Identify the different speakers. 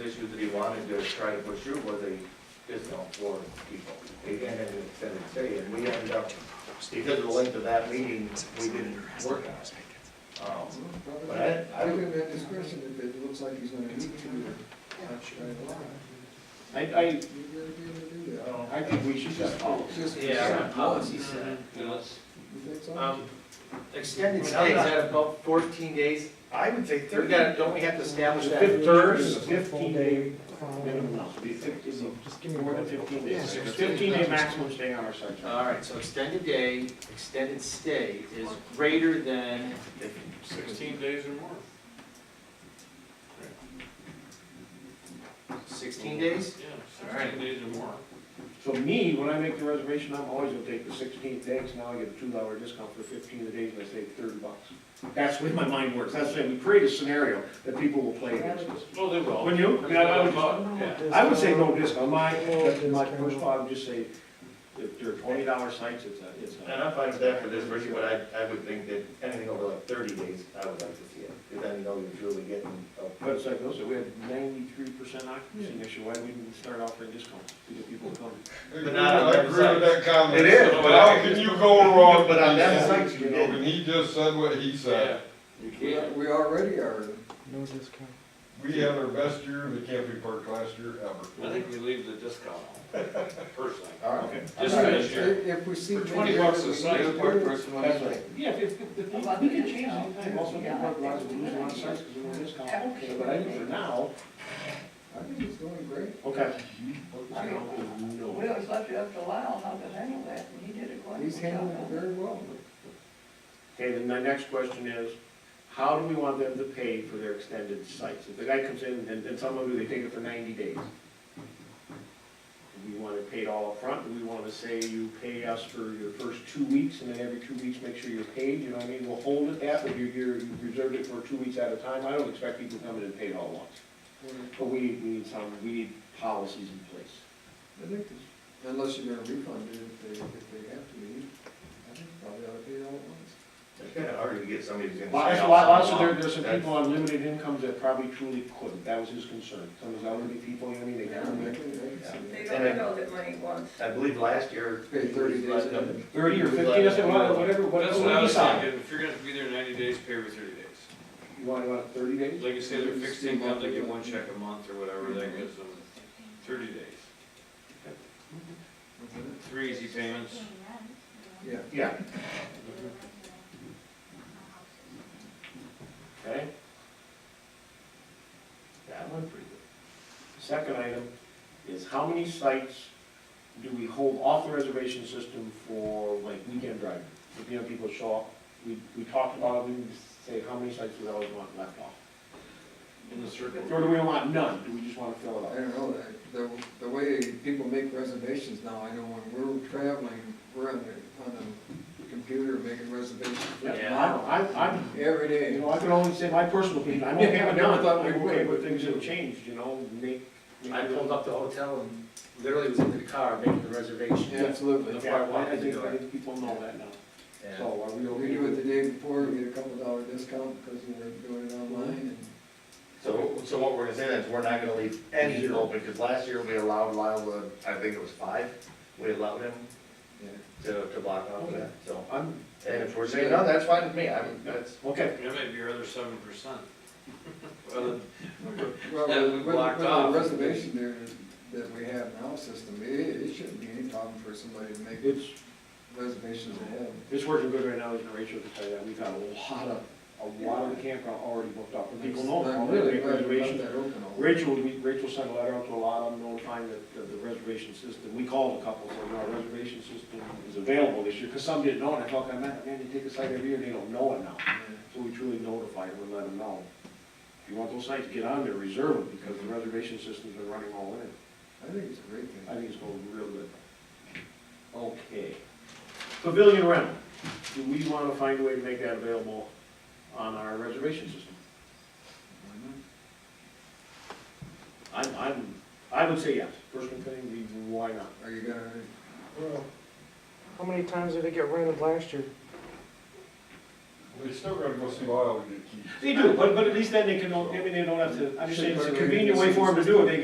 Speaker 1: issue that he wanted to try to push through was a discount for people, and an extended stay, and we ended up, because of the length of that meeting, we didn't work on it. Um, But I- I-
Speaker 2: Give him that discretion if it looks like he's gonna need to. uh, I,
Speaker 3: I, I,
Speaker 2: You're gonna be able to do that.
Speaker 3: I think we should just follow.
Speaker 2: Just-
Speaker 4: Yeah, our policy said, you know, it's,
Speaker 2: You think so?
Speaker 4: um, extended stays at about fourteen days.
Speaker 1: I would say
Speaker 4: We've got, don't we have to establish that?
Speaker 3: Fif- There's fifteen day minimum, be fifteen,
Speaker 2: Just give me
Speaker 3: more than fifteen days, fifteen day maximum stay on our site.
Speaker 4: All right, so extended day, extended stay is greater than,
Speaker 5: Sixteen days or more.
Speaker 4: 16 days?
Speaker 5: Yeah,
Speaker 4: All right.
Speaker 5: sixteen days or more.
Speaker 3: So me, when I make the reservation, I'm always gonna take the sixteenth day, 'cause now I get a two dollar discount for fifteen of the days, and I save thirty bucks. That's the way my mind works, that's the way we create a scenario that people will play against us.
Speaker 5: Oh, they will.
Speaker 3: Wouldn't you? I mean, I- I would just-
Speaker 5: Yeah.
Speaker 3: I would say no discount, my, my first thought, I would just say, if they're twenty dollar sites, it's a, it's
Speaker 1: And
Speaker 3: a.
Speaker 1: I'm fine with that for this version, but I, I would think that anything over like thirty days, I would like to see it, because then you know you're truly getting. a-
Speaker 3: But it's like, those, we had ninety-three percent occupancy next year, why wouldn't we start offering discounts to get people to come?
Speaker 1: But not on
Speaker 6: I
Speaker 1: that
Speaker 6: agree
Speaker 1: site.
Speaker 6: with that comment.
Speaker 1: It is,
Speaker 6: So
Speaker 1: but
Speaker 6: How
Speaker 1: I-
Speaker 6: can you go wrong?
Speaker 1: But on that
Speaker 6: with that?
Speaker 1: site, you
Speaker 6: You know,
Speaker 1: did.
Speaker 6: when he just said what he said,
Speaker 2: We
Speaker 4: yeah,
Speaker 2: we already are.
Speaker 7: No discount.
Speaker 6: we had our best year in the camping park last year
Speaker 5: I
Speaker 6: ever.
Speaker 5: think we leave the discount on, personally.
Speaker 1: All right.
Speaker 5: Just for this year.
Speaker 2: If- If we see.
Speaker 5: For 20 bucks a site,
Speaker 2: maybe-
Speaker 5: park
Speaker 3: That's right. Yeah, if, if, if, we can change it, I'm also gonna put a lot of losing on sites, because we want discount, okay, but I think for now,
Speaker 2: I think it's going great.
Speaker 3: okay.
Speaker 8: I mean, We always left it up to Lyle how to handle that, and he did it quite.
Speaker 2: He's handling it very well.
Speaker 3: Okay, then my next question is, how do we want them to pay for their extended sites? If the guy comes in and, and some of them, they take it for ninety days. Do we want it paid all upfront? Do we want to say you pay us for your first two weeks and then every two weeks make sure you're paid? You know what I mean? We'll hold it that, but you, you're, you reserved it for two weeks at a time. I don't expect people to come in and pay it all at once. But we need, we need some, we need policies in place.
Speaker 2: I think, this- unless you're gonna refund it if they, if they have to be, I think probably ought to pay it all at once.
Speaker 1: It's kind of hard to get somebody who's gonna.
Speaker 3: Lots,
Speaker 1: stay out
Speaker 3: lot- lots
Speaker 1: so
Speaker 3: of, there,
Speaker 1: long.
Speaker 3: there's some
Speaker 1: That's-
Speaker 3: people on limited incomes that probably truly couldn't, that was his concern. Some of the elderly people, you know, what I mean, they
Speaker 2: Yeah, I
Speaker 3: come
Speaker 2: can-
Speaker 3: in
Speaker 2: I can see that.
Speaker 8: They don't know that money wants.
Speaker 1: I believe last year.
Speaker 2: Pay 30 days in.
Speaker 1: Nothing.
Speaker 3: thirty or fifteen, I said, well, whatever,
Speaker 5: That's what I
Speaker 3: whatever,
Speaker 5: was
Speaker 3: decide.
Speaker 5: thinking, if you're gonna be there ninety days, pay every thirty days.
Speaker 3: You want, you want thirty days?
Speaker 5: Like you say, they're fixed income, they get one check a month or whatever, that gives them thirty days.
Speaker 2: Mhm.
Speaker 5: Three easy payments.
Speaker 2: Yeah.
Speaker 3: Yeah, okay. That one pretty good. Second item is how many sites do we hold off the reservation system for like weekend driving? If, you know, people show up, we, we talked about, it, we say, how many sites do we always want left off?
Speaker 5: In the circle.
Speaker 3: Or do we want none? Do we just want to fill it
Speaker 2: I
Speaker 3: up?
Speaker 2: don't know, the- the, the way people make reservations now, I know when we're traveling, we're on the, on the computer making reservations
Speaker 3: Yeah, I, I, I'm-
Speaker 2: every
Speaker 3: you
Speaker 2: day.
Speaker 3: know, I can only say my personal opinion. I'm okay with
Speaker 2: Yeah, I
Speaker 3: none.
Speaker 2: thought we
Speaker 3: I'm okay
Speaker 2: would.
Speaker 3: with things that have changed, you know, make. make-
Speaker 4: I pulled up the hotel and literally was in the car making the reservation.
Speaker 2: Yeah, Absolutely.
Speaker 4: That's
Speaker 3: Yeah,
Speaker 4: why I wanted
Speaker 3: I
Speaker 4: to
Speaker 3: think,
Speaker 4: do it.
Speaker 3: I think people know that now.
Speaker 1: Yeah.
Speaker 3: So are we
Speaker 2: We
Speaker 3: okay?
Speaker 2: do it
Speaker 3: with
Speaker 2: the day before, we get a couple dollar discount because we're doing it online
Speaker 1: So, so what we're gonna say then is we're not gonna leave any
Speaker 3: Zero.
Speaker 1: open, because last year we allowed Lyle, to- I think it was five, we allowed him
Speaker 2: and,
Speaker 1: to, to block off that, so.
Speaker 3: I'm,
Speaker 1: And if we're saying, no, that's fine with me, I'm, that's,
Speaker 3: okay.
Speaker 5: That might be your other seven percent. Well,
Speaker 2: Well,
Speaker 5: That we
Speaker 2: with,
Speaker 5: blocked
Speaker 2: with the
Speaker 5: off.
Speaker 2: reservation there that we have now system, it, it shouldn't be any problem for somebody to make
Speaker 3: It's,
Speaker 2: reservations ahead.
Speaker 3: it's working good right now, as Rachel can tell you that. We've got a lot of, a lot of campground already booked up. And people know,
Speaker 2: I'm
Speaker 3: oh, they
Speaker 2: really
Speaker 3: make
Speaker 2: glad we left
Speaker 3: reservations.
Speaker 2: that open all.
Speaker 3: Rachel, we- Rachel sent a letter out to a lot of them notifying that the- the reservation system, we called a couple, so you know, our reservation system is available this year, because some didn't know, it. I felt like, man, man, they take a site every year, they don't know it now. So we truly notified them and let them know. If you want those sites, get on there, reserve them, because the reservation system's been running all in.
Speaker 2: I think it's a great
Speaker 3: I
Speaker 2: thing.
Speaker 3: think it's going real good. Okay. Pavilion rental, do we want to find a way to make that available on our reservation system? I'm, I'm, I would say yes. First one thing, we- why not?
Speaker 2: Are you gonna,
Speaker 7: How many times did it get rented last year?
Speaker 6: They still gotta go see Lyle to get keys.
Speaker 3: They do, but, but at least then they can, I mean, they don't have to, I understand it's a convenient way for them to do it, they